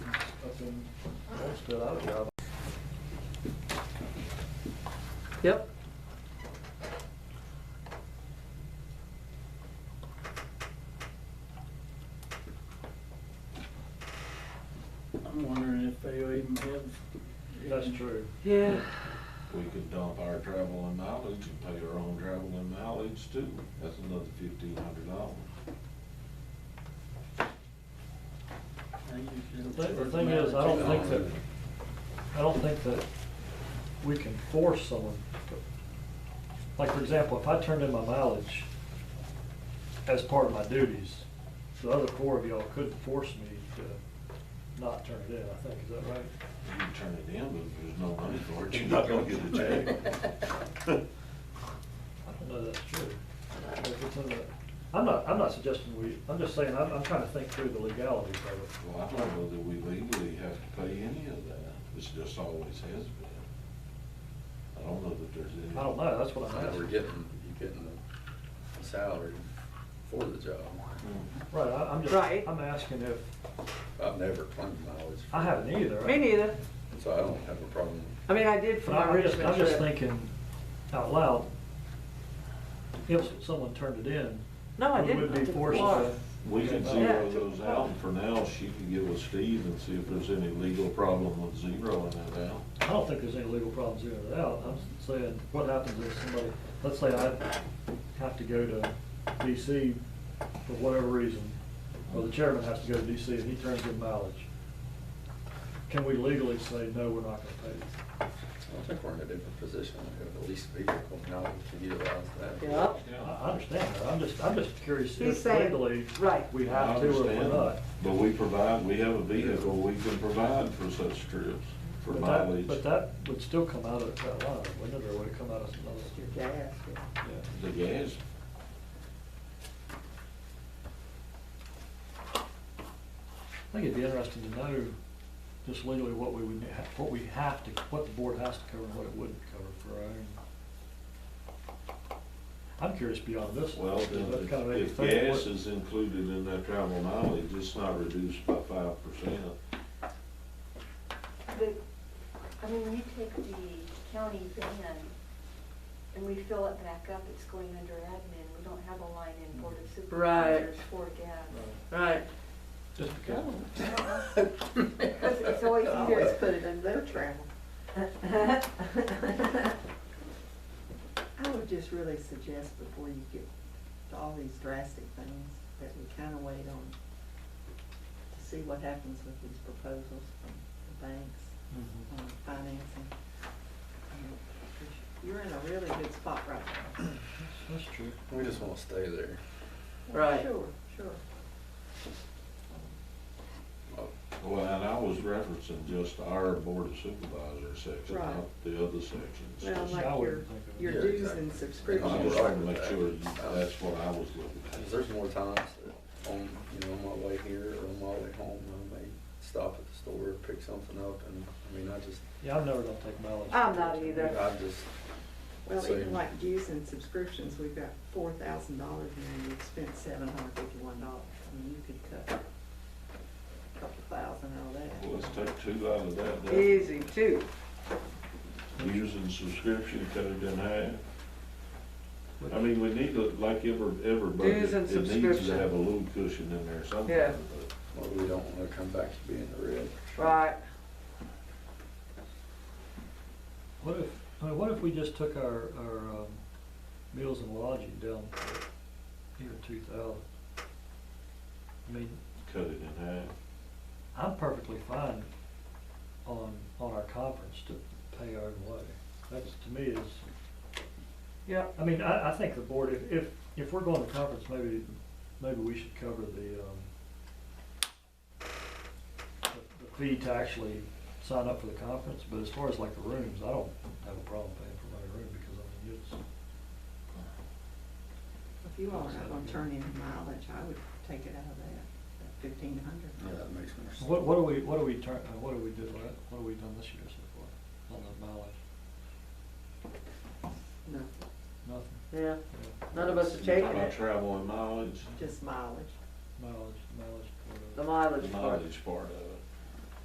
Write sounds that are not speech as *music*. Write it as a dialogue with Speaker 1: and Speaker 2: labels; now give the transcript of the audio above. Speaker 1: fill out job.
Speaker 2: Yep.
Speaker 3: I'm wondering if they even have.
Speaker 1: That's true.
Speaker 2: Yeah.
Speaker 4: We could dump our travel and mileage and pay our own travel and mileage too. That's another fifteen hundred dollars.
Speaker 3: they usually-
Speaker 1: The thing- the thing is, I don't think that- I don't think that we can force someone. to- Like, for example, if I turned in my mileage as part of my duties, the other four of y'all could force me to not turn it in, I think, is that right?
Speaker 4: You can turn it in, but if there's no money for it, you're not gonna get a check.
Speaker 1: I don't know if that's true. If it's in the- I'm not, I'm not suggesting we, I'm just saying, I'm, I'm trying to think through the legalities of it.
Speaker 4: Well, I don't know that we legally have to pay any of that. It's just always has been. I don't know that there's any.
Speaker 1: I don't know, that's what I'm
Speaker 5: Now we're
Speaker 1: asking.
Speaker 5: getting, you're getting the salary for the job.
Speaker 4: Hmm.
Speaker 1: Right, I, I'm just,
Speaker 2: Right.
Speaker 1: I'm asking if,
Speaker 5: I've never claimed mileage.
Speaker 1: I haven't either.
Speaker 2: Me neither.
Speaker 5: So I don't have a problem.
Speaker 2: I mean, I did for
Speaker 1: But
Speaker 2: my
Speaker 1: I'm just,
Speaker 2: Richmond
Speaker 1: I'm just
Speaker 2: trip.
Speaker 1: thinking out loud, if someone turned it in,
Speaker 2: No, I
Speaker 1: we
Speaker 2: didn't.
Speaker 1: would
Speaker 2: I
Speaker 1: be
Speaker 2: did
Speaker 1: forced
Speaker 2: Florida.
Speaker 1: to.
Speaker 4: We can
Speaker 2: Yeah.
Speaker 4: zero those out, and for now, she can get with Steve and see if there's any legal problem with zeroing that out.
Speaker 1: I don't think there's any legal problems here it out. I'm saying, what happens if somebody, let's say I have to go to DC for whatever reason, or the chairman has to go to DC and he turns in mileage. Can we legally say, no, we're not gonna pay
Speaker 5: I don't think we're in a different position. We have the lease vehicle now we can utilize that.
Speaker 2: Yep.
Speaker 1: you? I, I understand that. I'm just, I'm just curious
Speaker 2: He's
Speaker 1: if
Speaker 2: saying-
Speaker 1: legally
Speaker 2: right.
Speaker 1: we
Speaker 4: I
Speaker 1: have to or we're
Speaker 4: understand,
Speaker 1: not.
Speaker 4: But we provide, we have a vehicle, we can provide for such trips,
Speaker 1: But
Speaker 4: for
Speaker 1: that,
Speaker 4: mileage.
Speaker 1: but that would still come out of that line, wouldn't it, or would it come out of some other?
Speaker 2: Your gas, yeah.
Speaker 4: Yeah, The gas,
Speaker 1: I think it'd be interesting to know just legally what we would, ha- what we have to, what the board has to cover and what it wouldn't cover for our own. I'm curious beyond this.
Speaker 4: well, then
Speaker 1: That kind of
Speaker 4: if-
Speaker 1: made me
Speaker 4: if
Speaker 1: think,
Speaker 4: gas
Speaker 1: what-
Speaker 4: is included in that travel mileage, it's not reduced by five percent.
Speaker 6: The, I mean, you take the county van and we fill it back up, it's going under admin. We don't have a line in Board of
Speaker 2: Right.
Speaker 6: Supervisors for gas.
Speaker 1: Right,
Speaker 2: Right.
Speaker 1: Just because,
Speaker 2: Oh. *laughs*
Speaker 6: Because it's always either
Speaker 2: Always put it in their travel. *laughs*
Speaker 6: *laughs*
Speaker 2: I would just really suggest before you get to all these drastic things, that we kind of wait on to see what happens with these proposals from the banks
Speaker 1: Mm-hmm.
Speaker 2: on financing. Um, You're in a really good spot right now.
Speaker 1: that's true.
Speaker 5: We just want to stay there.
Speaker 2: Right. Sure, sure.
Speaker 5: Uh,
Speaker 4: Well, and I was referencing just our board of supervisors section,
Speaker 7: Right.
Speaker 4: not the other sections.
Speaker 7: Well,
Speaker 4: Just-
Speaker 7: like
Speaker 1: I
Speaker 7: your-
Speaker 1: wouldn't think of it.
Speaker 7: Your
Speaker 5: Yeah,
Speaker 7: dues
Speaker 5: exactly.
Speaker 7: and
Speaker 4: I
Speaker 7: subscriptions.
Speaker 4: just wanted to make sure you- that's what I was looking at.
Speaker 5: 'Cause there's more times that on, you know, on my way here or on my way home, I may stop at the store, pick something up and, I mean, I just,
Speaker 1: Yeah, I'm never gonna take mileage.
Speaker 2: I'm not either.
Speaker 5: I just,
Speaker 7: Well,
Speaker 5: Same.
Speaker 7: even like dues and subscriptions, we've got four thousand dollars and you've spent seven hundred fifty-one dollars. I mean, you could cut a couple thousand out of
Speaker 4: Well,
Speaker 7: that.
Speaker 4: Let's take two out of that, then.
Speaker 2: Easy, too.
Speaker 4: dues and subscription cut it in half. I mean, we need to, like every, every budget,
Speaker 2: Dues and
Speaker 4: it needs to
Speaker 2: subscription.
Speaker 4: have a little cushion in there
Speaker 2: Yeah.
Speaker 4: somewhere. but-
Speaker 5: well, we don't want to come back to being the red.
Speaker 2: Right.
Speaker 1: What if, I mean, what if we just took our, our, um, meals and lodging down to even two thousand? I mean,
Speaker 4: Cut it in half.
Speaker 1: I'm perfectly fine on, on our conference to pay our own way. That's, to me, is,
Speaker 2: Yep.
Speaker 1: I mean, I, I think the board, if, if, if we're going to conference, maybe, maybe we should cover the, um, the- the fee to actually sign up for the conference, but as far as like the rooms, I don't have a problem paying for my room, because I mean, it's,
Speaker 7: If you all are not gonna turn in mileage, I would take it out of that, fifteen hundred.
Speaker 5: Yeah, that makes more sense.
Speaker 1: What, what do we, what do we turn, uh, what do we do, what, what have we done this year so far on the mileage?
Speaker 7: No,
Speaker 1: Nothing,
Speaker 2: Yeah,
Speaker 1: yeah,
Speaker 2: none of us are taking
Speaker 4: My
Speaker 2: it.
Speaker 4: travel and mileage,
Speaker 7: just mileage. Mileage.
Speaker 1: mileage, mileage. for the-
Speaker 2: The mileage part.
Speaker 4: mileage part of it.